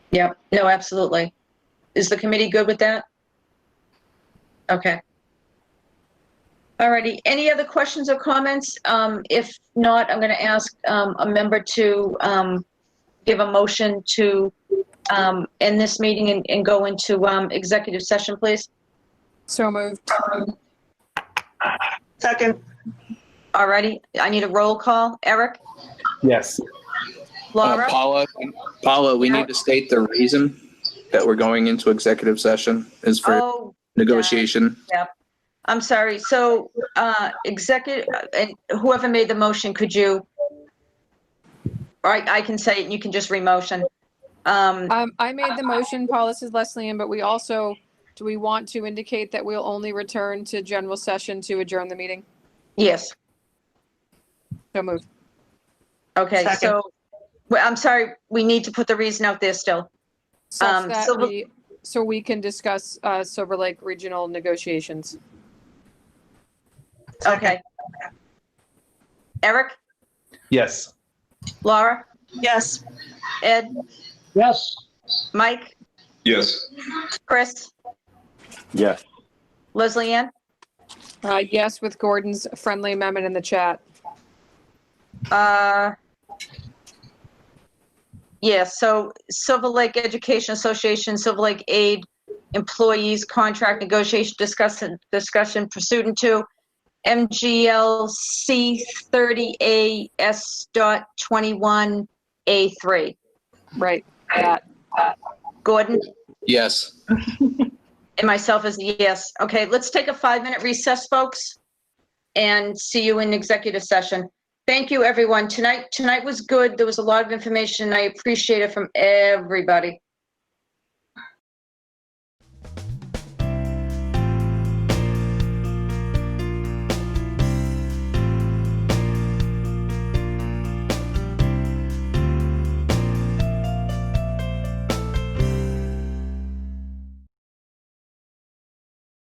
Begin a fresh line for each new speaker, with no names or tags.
Yep, no, absolutely. Is the committee good with that? Okay. Alrighty, any other questions or comments? Um, if not, I'm gonna ask, um, a member to, um, give a motion to, um, end this meeting and, and go into, um, executive session, please.
So moved.
Second,
Alrighty, I need a roll call. Eric?
Yes.
Laura?
Uh, Paula, Paula, we need to state the reason that we're going into executive session is for
Oh,
negotiation.
I'm sorry, so, uh, executive, and whoever made the motion, could you? All right, I can say it, and you can just re-motion. Um,
Um, I made the motion, Paul, this is Leslie Ann, but we also, do we want to indicate that we'll only return to general session to adjourn the meeting?
yes,
So moved.
okay,
Second.
so, well, I'm sorry, we need to put the reason out there still.
Such
Um,
that
Silver-
we, so we can discuss, uh, Silver Lake regional negotiations.
Okay. Eric,
Yes.
Laura,
yes.
Ed,
Yes.
Mike,
Yes.
Chris,
Yes.
Leslie Ann?
Uh, yes, with Gordon's friendly amendment in the chat.
Uh, Yeah, so Silver Lake Education Association, Silver Lake Aid Employees Contract Negotiation Discussion, Discussion Pursuant to MGLC 30A S dot 21A3.
Right, that,
Gordon
Yes.
and myself is a yes. Okay, let's take a five-minute recess, folks, and see you in executive session. Thank you, everyone. Tonight, tonight was good. There was a lot of information. I appreciate it from everybody.